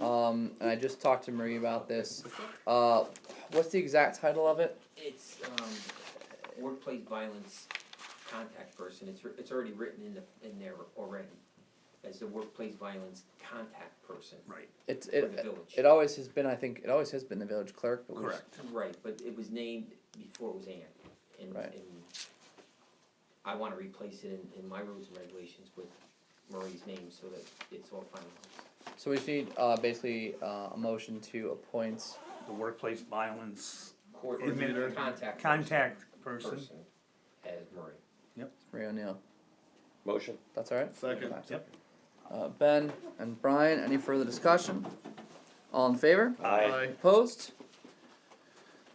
Um, and I just talked to Marie about this. Uh, what's the exact title of it? It's um, workplace violence contact person. It's, it's already written in the, in there already as the workplace violence contact person Right, It's for the it. village. It always has been. I think it always has been the village clerk. But we just- correct. Right, but it was named before it was Ann. And, Right. and I wanna replace it in, in my rules and regulations with Marie's name so that it's all finalized. So we just need uh, basically uh, a motion to appoint. The workplace violence Coordinator, contact person. contact person. As Marie. Marie O'Neill. Motion. That's all right. Second. Yep. Uh, ben and Brian. Any further discussion? All in favor? Aye. Opposed?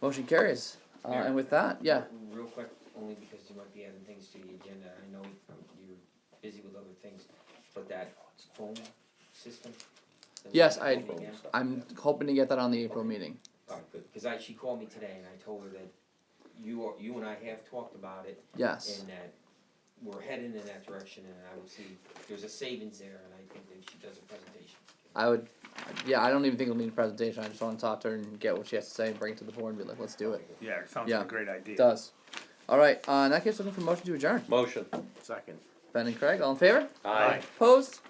Motion carries. Uh, Yeah. and with that, yeah. Real quick, only because you might be adding things to the agenda, I know you're busy with other things, but that phone system. that we Yes, have I- going now- I'm hoping to get that on the April meeting. Alright, good, cause I, she called me today and I told her that you are, you and I have talked about it Yes. and that we're heading in that direction, and I would see, there's a savings there, and I think that she does a presentation. I would. Yeah, I don't even think we'll need a presentation. I just want to talk to her and get what she has to say and bring it to the board and be like, let's do it. Yeah, it sounds Yeah. like a great idea. It does. All right. Uh, in that case, looking for motion to adjourn. Motion. Second. Ben and Craig, all in favor? Aye. Opposed?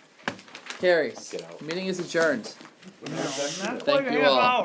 Carries. Get out. Meeting is adjourned. Not Thank quite a you half all. hour.